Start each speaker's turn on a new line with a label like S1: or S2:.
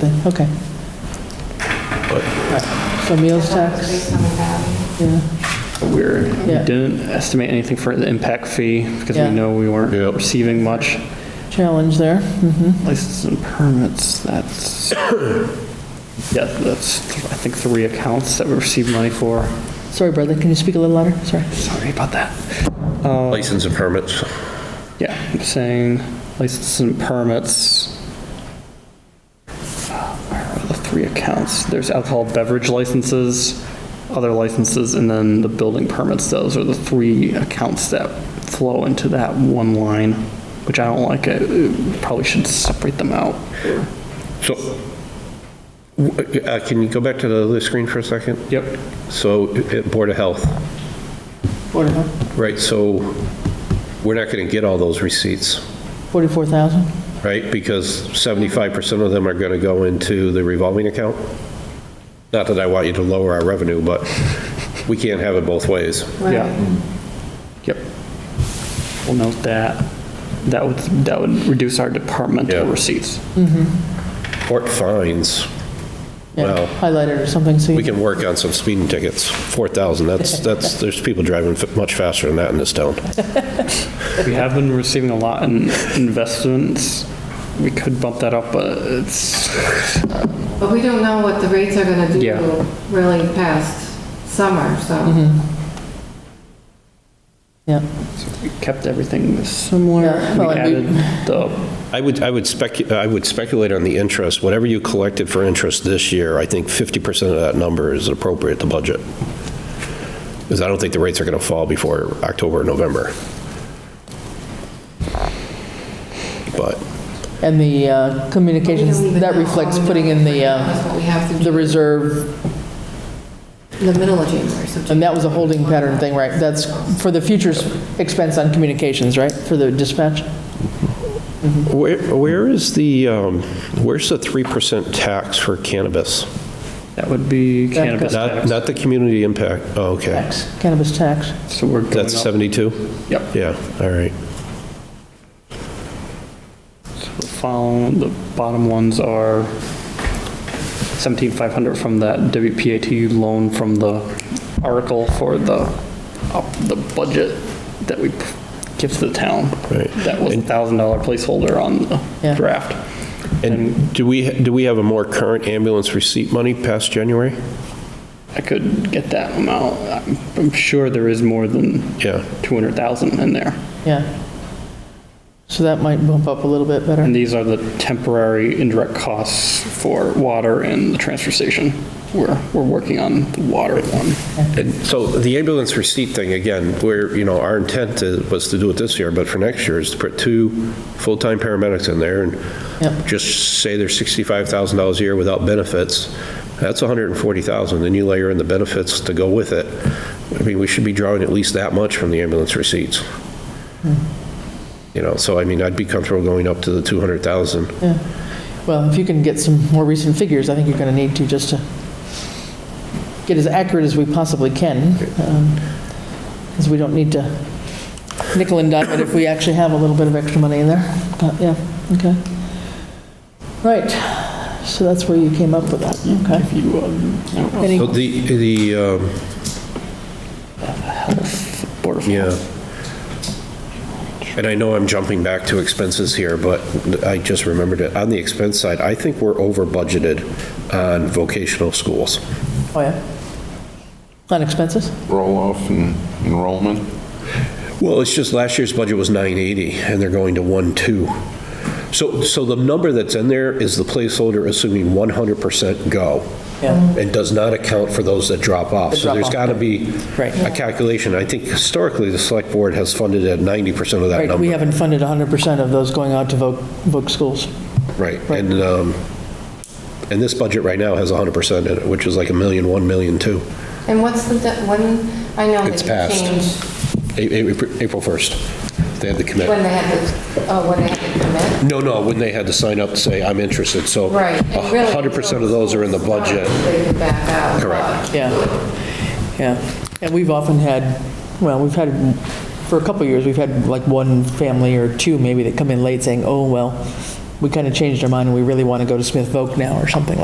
S1: something, okay. So meals tax,
S2: Based on the value.
S1: yeah,
S3: Weird. We
S1: Yeah.
S3: didn't estimate anything for the impact fee because we
S1: Yeah.
S3: know we weren't
S4: Yep.
S3: receiving much.
S1: challenge there. mhm.
S3: Licenses and permits, that's, yeah, that's, I think, three accounts that we received money for.
S1: Sorry, Bradley, can you speak a little louder? Sorry.
S3: Sorry about that.
S4: License and permits.
S3: Yeah, I'm saying licenses and permits. Where are the three accounts? There's alcohol beverage licenses, other licenses, and then the building permits. Those are the three accounts that flow into that one line, which I don't like. I Probably should separate them out.
S4: So, w- uh, can you go back to the other screen for a second?
S3: Yep.
S4: So, uh, Board of Health,
S1: Board of Health,
S4: right, so we're not going to get all those receipts,
S1: 44,000?
S4: right? Because 75% of them are going to go into the revolving account? Not that I want you to lower our revenue, but we can't have it both ways.
S3: Yeah. Yep. We'll note that. That would, that would reduce our departmental
S4: Yeah.
S3: receipts.
S4: Court fines,
S1: Yeah,
S4: Well-
S1: Highlighted or something, so
S4: we
S1: you
S4: can work on some speeding tickets, 4,000, that's, that's, there's people driving f- much faster than that in this town.
S3: We have been receiving a lot in investments. We could bump that up, but it's,
S2: But we don't know what the rates are gonna do
S3: Yeah.
S2: really past summer,
S1: Mm-hmm.
S2: so.
S1: yeah.
S3: we kept everything similar.
S1: Yeah,
S3: We
S1: well, and we-
S3: added the,
S4: I would, I would specu, I would speculate on the interest, whatever you collected for interest this year, I think 50% of that number is appropriate to budget. Because I don't think the rates are going to fall before October, or November. But,
S1: And the uh, communications,
S2: We don't even
S1: that
S2: know.
S1: reflects
S2: All we
S1: putting
S2: know
S1: in
S2: right
S1: the,
S2: now is
S1: uh,
S2: what we have to
S1: the
S2: do
S1: reserve,
S2: in the middle of January, so.
S1: and that was a holding pattern thing, right? That's for the future's expense on communications, right, for the dispatch?
S4: where, where is the, um, where's the 3% tax for cannabis?
S3: that would be cannabis
S4: Not,
S3: tax.
S4: not the community impact, oh, okay.
S1: Tax, cannabis tax.
S3: So we're going
S4: That's
S3: up.
S4: 72?
S3: Yep.
S4: Yeah, all right.
S3: The following, the bottom ones are 17,500 from that WPAT loan from the article for the, up the budget that we give to the town.
S4: Right.
S3: That was a $1,000 placeholder on the
S1: Yeah.
S3: draft.
S4: And do we, do we have a more current ambulance receipt money past January?
S3: I could get that amount. I'm- I'm sure there is more than
S4: Yeah.
S3: 200,000 in there.
S1: Yeah. So that might bump up a little bit better.
S3: And these are the temporary indirect costs for water and the transfer station. We're, we're working on the water one.
S4: And so the ambulance receipt thing, again, where, you know, our intent to- was to do it this year, but for next year is to put two full-time paramedics in there and
S1: Yep.
S4: just say they're $65,000 a year without benefits. That's 140,000, then you layer in the benefits to go with it. I mean, we should be drawing at least that much from the ambulance receipts. You know, so I mean, I'd be comfortable going up to the 200,000.
S1: Yeah. Well, if you can get some more recent figures, I think you're going to need to just to get as accurate as we possibly can, because we don't need to nickel and dime it if we actually have a little bit of extra money in there. But, yeah, okay. Right, so that's where you came up with that, okay.
S3: You, um,
S1: Any-
S4: So the, the, um,
S3: Board of
S4: Yeah.
S3: Health.
S4: And I know I'm jumping back to expenses here, but I just remembered it. On the expense side, I think we're over budgeted on vocational schools.
S1: Oh, yeah. On expenses?
S5: roll-off and enrollment.
S4: Well, it's just last year's budget was 980 and they're going to 1.2. So, so the number that's in there is the placeholder assuming 100% go.
S1: Yeah.
S4: And does not account for those that drop off.
S1: That
S4: So there's
S1: drop off.
S4: got to be
S1: Right.
S4: a calculation. I think historically, the select board has funded at 90% of that
S1: Right, we
S4: number.
S1: haven't funded 100% of those going out to voc, voc schools.
S4: Right, and, um, and this budget right now has 100% in it, which is like a million, 1 million, 2.
S2: And what's the, de- when, I know
S4: It's
S2: that you
S4: passed.
S2: changed
S4: A- A- April 1st, they had the
S2: when
S4: commit.
S2: they had to, oh, when they had to commit.
S4: No, no, when they had to sign up to say, I'm interested, so.
S2: Right.
S4: a
S2: and really,
S4: 100% of those are in the
S2: until it's
S4: budget.
S2: done, They can back out.
S4: Correct.
S1: Yeah, yeah. And we've often had, well, we've had, for a couple of years, we've had like one family or two maybe that come in late saying, oh, well, we kind of changed our mind and we really want to go to Smith Voc now or something like